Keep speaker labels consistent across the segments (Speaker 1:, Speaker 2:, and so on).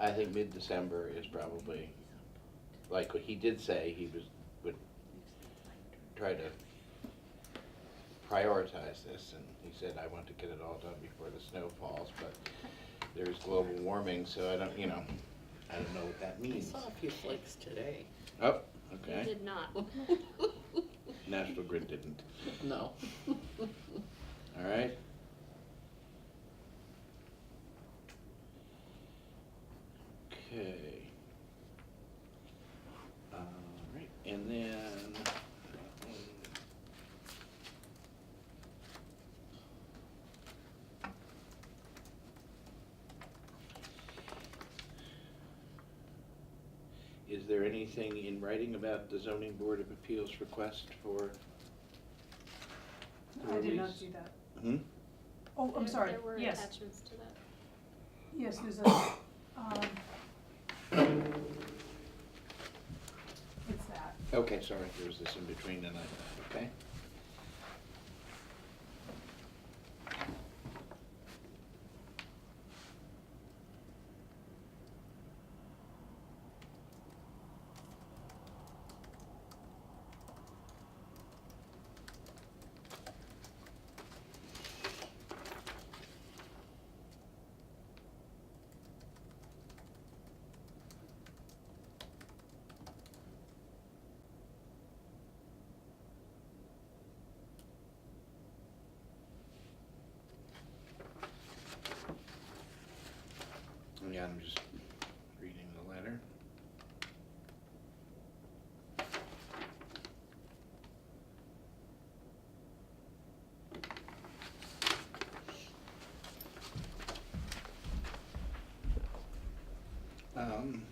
Speaker 1: I think mid-December is probably, like, what he did say, he was, would try to prioritize this, and he said, I want to get it all done before the snow falls, but there's global warming, so I don't, you know, I don't know what that
Speaker 2: I
Speaker 1: means.
Speaker 2: saw a few flakes today.
Speaker 1: Oh,
Speaker 3: You
Speaker 1: okay,
Speaker 3: did not.
Speaker 1: National Grid didn't,
Speaker 2: No.
Speaker 1: all right? Okay. All right, and then. that one. Is there anything in writing about the zoning board of appeals request for? the
Speaker 4: I did not
Speaker 1: release?
Speaker 4: see that.
Speaker 1: Hmm?
Speaker 4: Oh, I'm
Speaker 3: There-
Speaker 4: sorry,
Speaker 3: There were
Speaker 4: yes,
Speaker 3: attachments to that.
Speaker 4: yes, there's a, um, it's that.
Speaker 1: Okay, sorry, there was this in between and I, okay. Yeah, I'm just reading the letter. Um,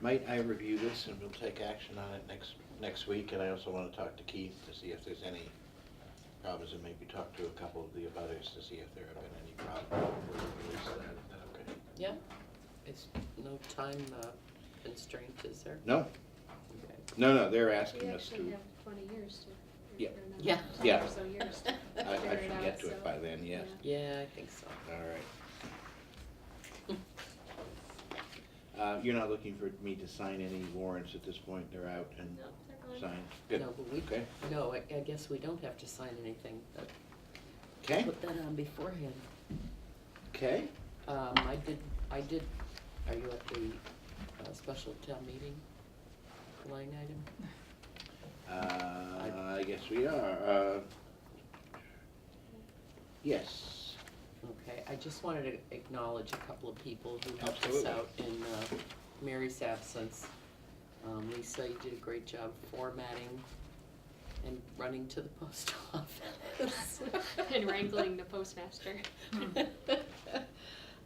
Speaker 1: Might I review this and we'll take action on it next, next week, and I also wanna talk to Keith to see if there's any problems, and maybe talk to a couple of the others to see if there have been any problems. We'll release that, is that okay?
Speaker 2: Yeah, it's no time uh, constraint, is there?
Speaker 1: No,
Speaker 2: Okay.
Speaker 1: no, no, they're asking
Speaker 3: We
Speaker 1: us
Speaker 3: actually
Speaker 1: to,
Speaker 3: have twenty years to.
Speaker 1: Yeah.
Speaker 3: or no,
Speaker 2: Yeah.
Speaker 3: 10
Speaker 1: Yeah.
Speaker 3: or so years to
Speaker 1: I, I
Speaker 3: figure it
Speaker 1: should
Speaker 3: out,
Speaker 1: get to
Speaker 3: so-
Speaker 1: it by then, yes,
Speaker 2: Yeah, I think so.
Speaker 1: all right. Uh, you're not looking for me to sign any warrants at this point, they're out and
Speaker 3: No, they're gone.
Speaker 1: signed, good,
Speaker 2: No, but we,
Speaker 1: okay,
Speaker 2: no, I I guess we don't have to sign anything, but
Speaker 1: okay,
Speaker 2: put that on beforehand.
Speaker 1: okay,
Speaker 2: Um, I did, I did, are you at the uh, special town meeting line item?
Speaker 1: uh, I guess we are, uh. Yes,
Speaker 2: Okay, I just wanted to acknowledge a couple of people who helped us
Speaker 1: Absolutely.
Speaker 2: out in uh, Mary's absence. Um, Lisa, you did a great job formatting and running to the post office.
Speaker 3: And wrangling the postmaster.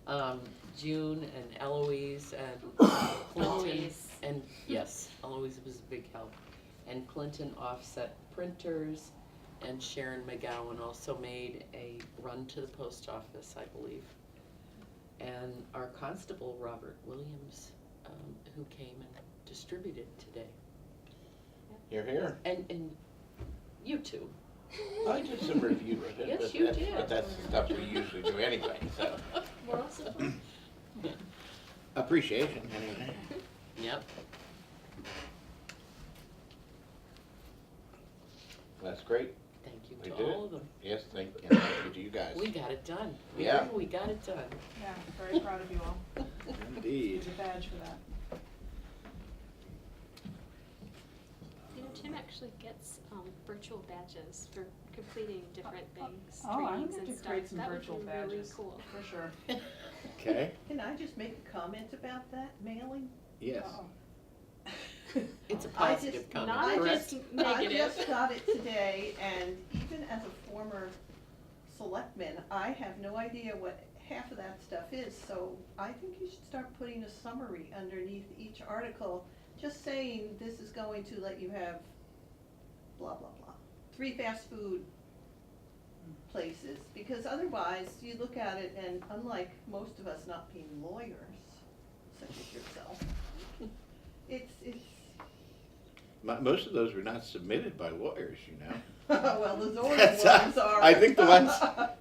Speaker 2: Um, June and Eloise and Clinton.
Speaker 3: Eloise.
Speaker 2: And, yes, Eloise was a big help. And Clinton Offset Printers and Sharon McGowan also made a run to the post office, I believe. And our constable, Robert Williams, um, who came and distributed today.
Speaker 1: you're here,
Speaker 2: And, and you too.
Speaker 1: I did some review of it,
Speaker 2: Yes,
Speaker 1: but
Speaker 2: you
Speaker 1: that's,
Speaker 2: did.
Speaker 1: but that's the stuff we usually do anyway, so,
Speaker 3: We're also,
Speaker 1: appreciation anyway.
Speaker 2: Yep.
Speaker 1: That's great,
Speaker 2: Thank
Speaker 1: We
Speaker 2: you to
Speaker 1: did it.
Speaker 2: all of them.
Speaker 1: yes, thank, and thank you to you guys.
Speaker 2: We got it done. We-
Speaker 1: Yeah.
Speaker 2: We got it done.
Speaker 4: Yeah, very proud of you all.
Speaker 1: Indeed.
Speaker 4: There's a badge for that.
Speaker 3: you know, Tim actually gets um, virtual badges for completing different things,
Speaker 4: Oh, I'm
Speaker 3: trainings
Speaker 4: going
Speaker 3: and
Speaker 4: to
Speaker 3: stuff.
Speaker 4: create some
Speaker 3: That would
Speaker 4: virtual
Speaker 3: be really
Speaker 4: badges,
Speaker 3: cool.
Speaker 4: for sure.
Speaker 1: Okay,
Speaker 5: Can I just make a comment about that mailing?
Speaker 1: yes.
Speaker 4: Uh-oh.
Speaker 2: It's a
Speaker 5: I just-
Speaker 2: positive
Speaker 3: not
Speaker 2: comment,
Speaker 5: I
Speaker 2: correct?
Speaker 5: just-
Speaker 3: just
Speaker 5: I just
Speaker 3: negative.
Speaker 5: got it today, and even as a former selectman, I have no idea what half of that stuff is, so I think you should start putting a summary underneath each article, just saying this is going to let you have blah, blah, blah. Three fast food places, because otherwise, you look at it, and unlike most of us not being lawyers, such as yourself, it's, it's,
Speaker 1: Mo- Most of those were not submitted by lawyers, you know.
Speaker 5: well, the
Speaker 1: That's-
Speaker 5: Zords ones are.
Speaker 1: I think the ones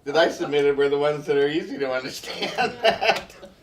Speaker 1: that I submitted were the ones that are easy to understand.